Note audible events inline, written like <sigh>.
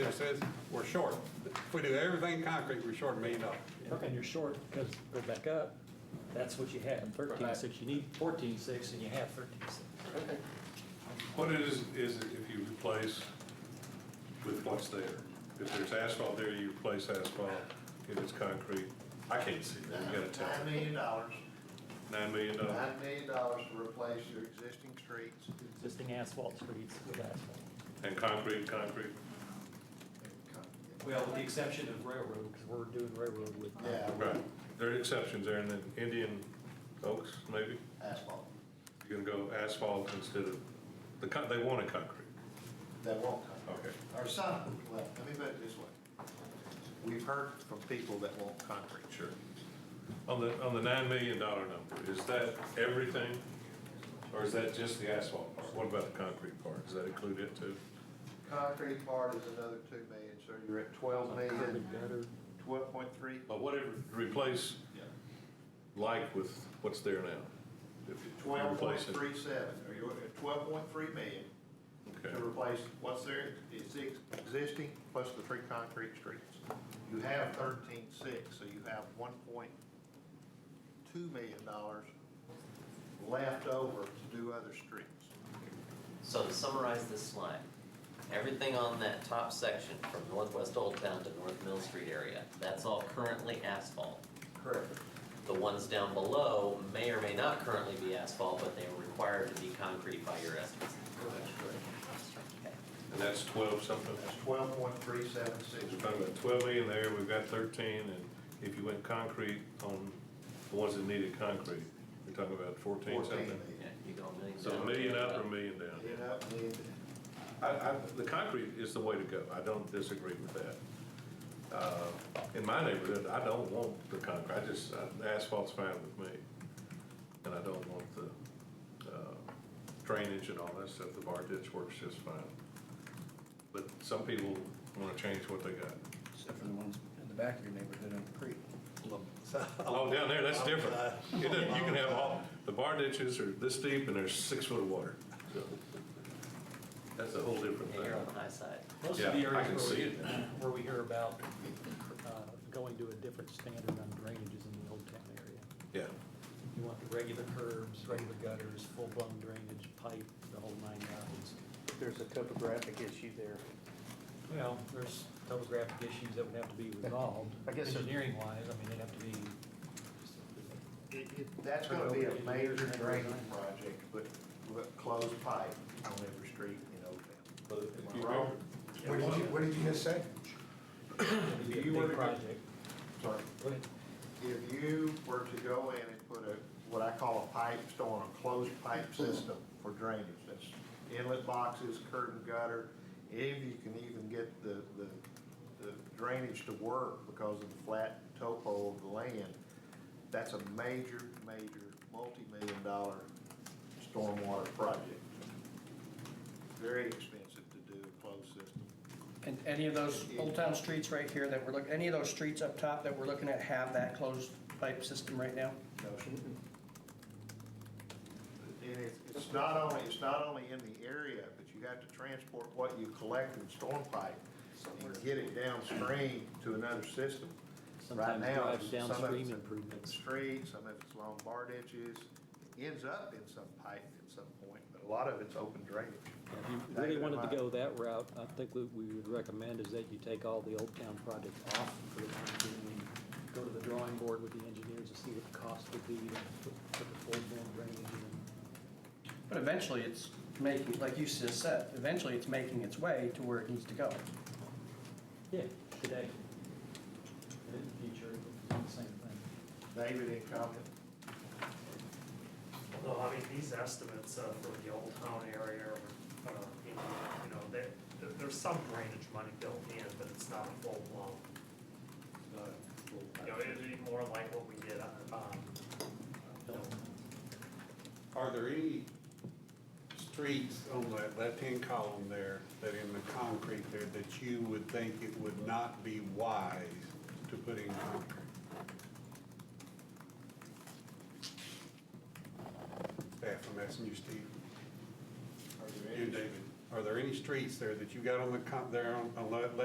Commissioner says, we're short. If we do everything concrete, we're short a million dollars. And you're short, because go back up, that's what you have, thirteen six, you need fourteen six, and you have thirteen six. What it is, is if you replace with what's there. If there's asphalt there, you replace asphalt. If it's concrete, I can't see that, you gotta Nine tell me. million dollars, Nine million dollars. nine million dollars to replace your existing streets. Existing asphalt streets with asphalt. And concrete, concrete, Well, with the exception of railroad, because we're doing railroad with. Yeah. right. There are exceptions there, and then Indian Oaks, maybe, Asphalt, you're gonna go asphalt instead of, the, con- they wanted concrete. that won't come. Okay. Or some, well, let me put it this way. We've heard from people that want concrete. Sure. On the, on the nine million dollar number, is that everything? Or is that just the asphalt part? What about the concrete part? Does that include it too? Concrete part is another two million, so you're at twelve million, Gutter, twelve point three? But whatever, replace Yeah. like with what's there now. If you Twelve point replace it. three seven, or you're at twelve point three million to Okay, replace what's there, it's ex- existing plus the three concrete streets. You have thirteen six, so you have one point two million dollars left over to do other streets. So to summarize this slide, everything on that top section from Northwest Old Town to North Mill Street area, that's all currently asphalt. Correct. The ones down below may or may not currently be asphalt, but they are required to be concrete by your estimates. That's correct. and that's twelve something. That's twelve point three seven six. We're talking about twelve million there, we've got thirteen, and if you went concrete on the ones that needed concrete, you're talking about fourteen something. Yeah, you go a million down. So a million up or a million down? It up, and I, I, the concrete is the way to go, I don't disagree with that. Uh, In my neighborhood, I don't want the concrete, I just, uh, the asphalt's fine with me. And I don't want the uh, drainage and all that stuff, the bar ditch works just fine. But some people wanna change what they got. Except for the ones in the back of your neighborhood on the creek. Oh, down there, that's different. It doesn't- You can have all, the bar ditches are this deep and there's six foot of water. So, That's a whole different Yeah, you're on the thing. high side. Most of the Yeah, I can areas see where we, it now. <clears throat> where we hear about, uh, going to a different standard on drainage is in the Old Town area. Yeah. You want the regular curbs, regular gutters, full-blown drainage, pipe, the whole nine yards. There's a topographic issue there. Well, there's topographic issues that would have to be resolved. I guess it- Engineering wise, I mean, it'd have to be. it- it- That's gonna be a major drainage project, but, but closed pipe on every street in Old Town. But if you Am I wrong? What did you, what did you just say? it'd be a If you big were to go- project. Sorry. Go ahead. If you were to go in and put a, what I call a pipe storm, a closed pipe system for drainage, that's inlet boxes, curtain gutter, if you can even get the, the, the drainage to work because of the flat topo of the land, that's a major, major, multi-million dollar stormwater project. Very expensive to do a closed system. And any of those Old Town streets right here that we're looking, any of those streets up top that we're looking at have that closed pipe system right now? No, sir. And it's, it's not only, it's not only in the area, but you have to transport what you collect in storm pipe and get it downstream to another system. Right Sometimes now, drives some of it's downstream in the improvements. street, some of it's along bar ditches, ends up in some pipe at some point, but a lot of it's open drainage. If you really wanted to go that route, I think what we would recommend is that you take all the Old Town projects off for the time being. and Go to the drawing board with the engineers and see what the cost would be to put put the full-blown drainage in. But eventually it's making, like you just said, eventually it's making its way to where it needs to go. Yeah, today. And in the future, it's the same thing. David, any comment? Well, I mean, these estimates uh, for the old town area, uh, you know, you know, there, there- there's some drainage money built in, but it's not a full blown. You know, it'd be more like what we did on, um, Are there any streets on that left-hand column there that in the concrete there that you would think it would not be wise to put in concrete? Staff, I'm asking you, Steve. Are there any- You, David. Are there any streets there that you got on the, con- there on, on that left